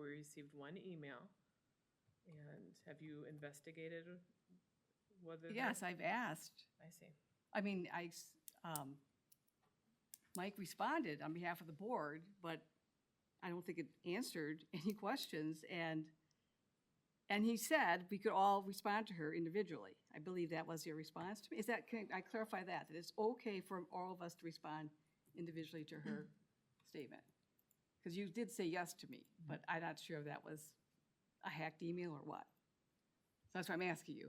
received one email. And have you investigated whether? that- Yes, I've asked. I see. I mean, I, s- um, Mike responded on behalf of the board, but I don't think it answered any questions, and, and he said we could all respond to her individually. I believe that was your response to me. Is that, can I clarify that? That it's okay for all of us to respond individually to her statement? Because you did say yes to me, but I'm not sure if that was a hacked email or what. So that's why I'm asking you.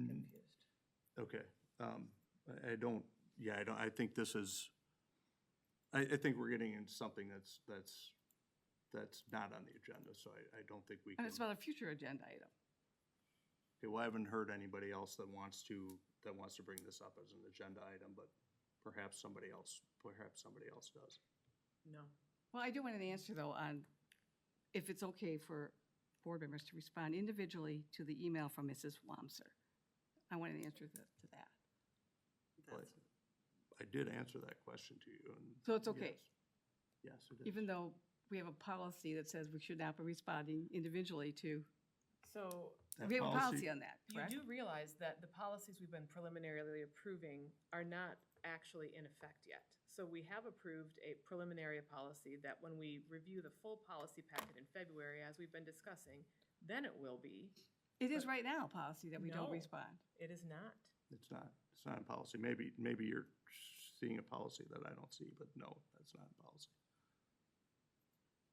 I'm Mm-hmm. confused. Okay, um, I, I don't, yeah, I don't, I think this is, I, I think we're getting into something that's, that's, that's not on the agenda, so I, I don't think we can. And it's about a future agenda item. Okay, well, I haven't heard anybody else that wants to, that wants to bring this up as an agenda item, but perhaps somebody else, perhaps somebody else does. No. Well, I do want an answer, though, on if it's okay for board members to respond individually to the email from Mrs. Wamser. I want an answer to to that. But I did answer that question to you and. So it's okay, Yes, yes, it is. even though we have a policy that says we should not be responding individually to, So That we have a policy- policy on that, you correct? do realize that the policies we've been preliminarily approving are not actually in effect yet. So we have approved a preliminary policy that when we review the full policy packet in February, as we've been discussing, then it will be. It is right now a policy that we No. don't respond. It is not. It's not, it's not in policy. Maybe, maybe you're seeing a policy that I don't see, but no, that's not in policy.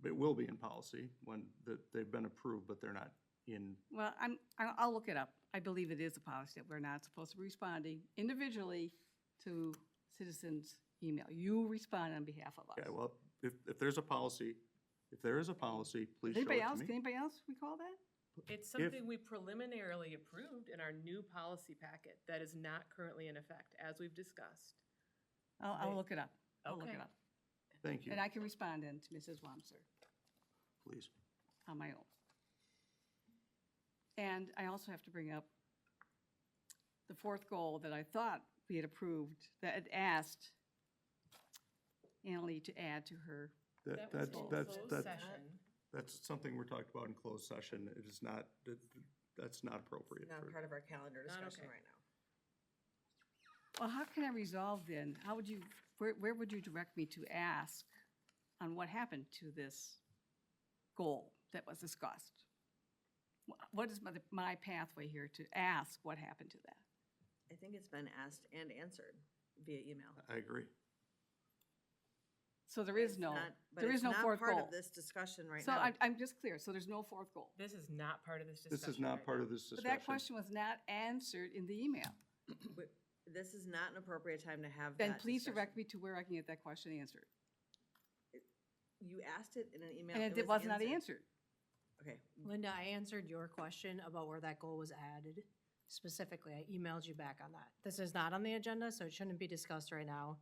But it will be in policy when, that they've been approved, but they're not in, Well, I'm, I- I'll look it up. I believe it is a policy that we're not supposed to be responding individually to citizens' email. You respond on behalf of us. okay, well, if, if there's a policy, if there is a policy, please show it Anybody else, to can me. anybody else recall that? It's something we preliminarily approved in our new policy packet that is not currently in effect, as we've discussed. I'll, I'll They- look it up. I'll look Okay. it up. Thank you, And I can respond then to Mrs. Wamser please. on my own. And I also have to bring up the fourth goal that I thought we had approved, that had asked Annalee to add to her. That, was that's, in that's, closed that's, session. that's something we're talking about in closed session. It is not, that, that's not appropriate. Not for- part of our calendar Not discussion okay. right now. Well, how can I resolve then? How would you, where, where would you direct me to ask on what happened to this goal that was discussed? Wh- What is my, my pathway here to ask what happened to that? I think it's been asked and answered via email. I agree. So Uh, there is It's no, not- but there it's is no not fourth Part goal. of this discussion right So now. I'm, I'm just clear, so there's no fourth goal. This is not part of this discussion. This is not right part now. of this But discussion. that question was not answered in the email. We- This is not an appropriate time to have Then that please discussion. direct me to where I can get that question answered. You asked it in an email. And it was not answered. Okay, Linda, I answered your question about where that goal was added specifically. I emailed you back on that. This is not on the agenda, so it shouldn't be discussed right now.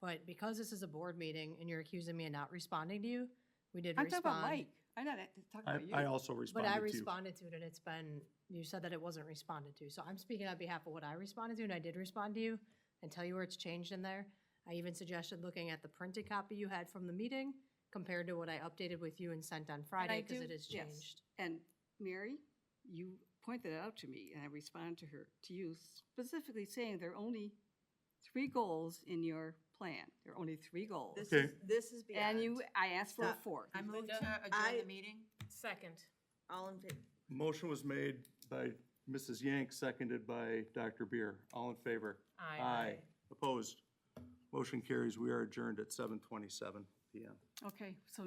But because this is a board meeting and you're accusing me of not responding to you, we did I'm talking respond. about Mike. I'm not at- talking about you. I, I also But responded to I you. responded to it and it's been, you said that it wasn't responded to. So I'm speaking on behalf of what I responded to and I did respond to you and tell you where it's changed in there. I even suggested looking at the printed copy you had from the meeting compared to what I updated with you and sent on And I Friday because do- it has yes. changed. And Mary, you pointed that out to me, and I responded to her, to you specifically saying there are only three goals in your plan. There are only three goals. this Okay. is, this is beyond. And you, I asked for a Stop. fourth. I move Linda? to I- adjourn the meeting. Second. All in favor? Motion was made by Mrs. Yank, seconded by Dr. Beer. All in favor? Aye. Opposed? Motion carries. We are adjourned at seven twenty-seven PM. Okay, so